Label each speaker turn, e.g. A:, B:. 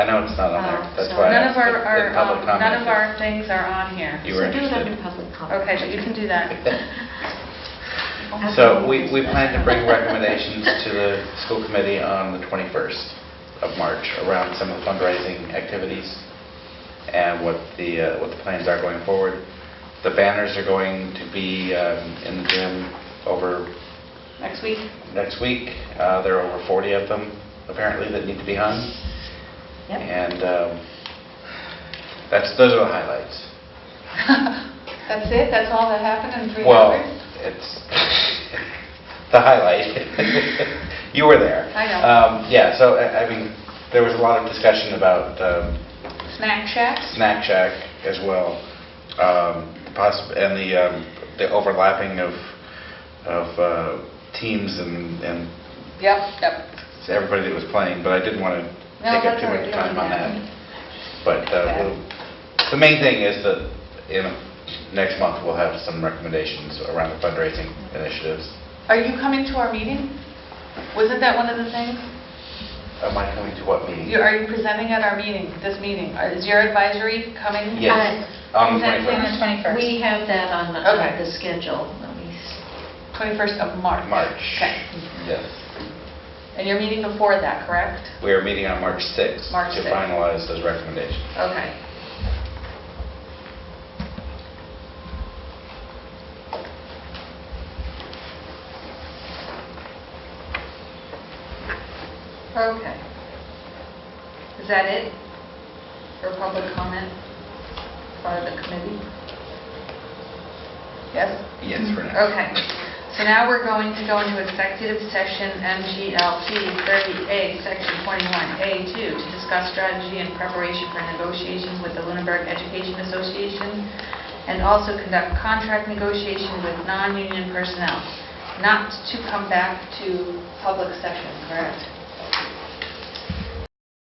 A: I know it's not on there,
B: Uh,
A: that's
B: so
A: why. I
C: Oh, None of
A: asked
C: our,
A: if-
C: our,
A: if public
C: um,
A: comment
C: none of
A: if
C: our things are on here.
A: You were
B: So do it under
A: interested.
B: public comment.
C: Okay, but you can do that.
A: So we, we plan to bring recommendations to the school committee on the 21st of March around some of the fundraising activities and what the, uh, what the plans are going forward. The banners are going to be um, in the gym over
C: Next week?
A: next week. Uh, There are over 40 of them apparently that need to be hung.
B: Yep.
A: And um, that's, those are the highlights.
C: That's it? That's all that happened in three
A: Well,
C: hours?
A: it's the highlight. You were there.
C: I know.
A: Um, Yeah, so, I I mean, there was a lot of discussion about um,
C: Snack shacks?
A: Snack Shack as well, um, the poss- and the um, the overlapping of of uh, teams and and
C: Yep, yep.
A: everybody that was playing, but I didn't want to
C: No,
A: take up
C: that's
A: too
C: all
A: much
C: right.
A: time on that.
C: Yeah.
A: But uh,
C: Okay.
A: we'll- the main thing is that, you know, next month, we'll have some recommendations around the fundraising initiatives.
C: Are you coming to our meeting? Wasn't that one of the things?
A: Am I coming Uh, to what meeting?
C: You- Are you presenting at our meeting, this meeting? Are- Is your advisory coming?
A: Yes, Um, on the
C: Uh, is
A: 21st,
C: that
B: We have that on the-
C: Okay.
B: on the schedule. Let me s-
C: 21st of March?
A: March.
C: Okay.
A: Yes.
C: And you're meeting before that, correct?
A: We are meeting on March 6th.
C: March
A: To
C: 6th.
A: finalize those recommendations.
C: Okay. Okay. Is that it? For public comment for the committee? Yes?
A: Yes, for now.
C: Okay, so now we're going to go into executive session MGLT 30A, Section 21A2, to discuss strategy and preparation for negotiations with the Lunenburg Education Association, and also conduct contract negotiation with non-union personnel, not to come back to public session, correct?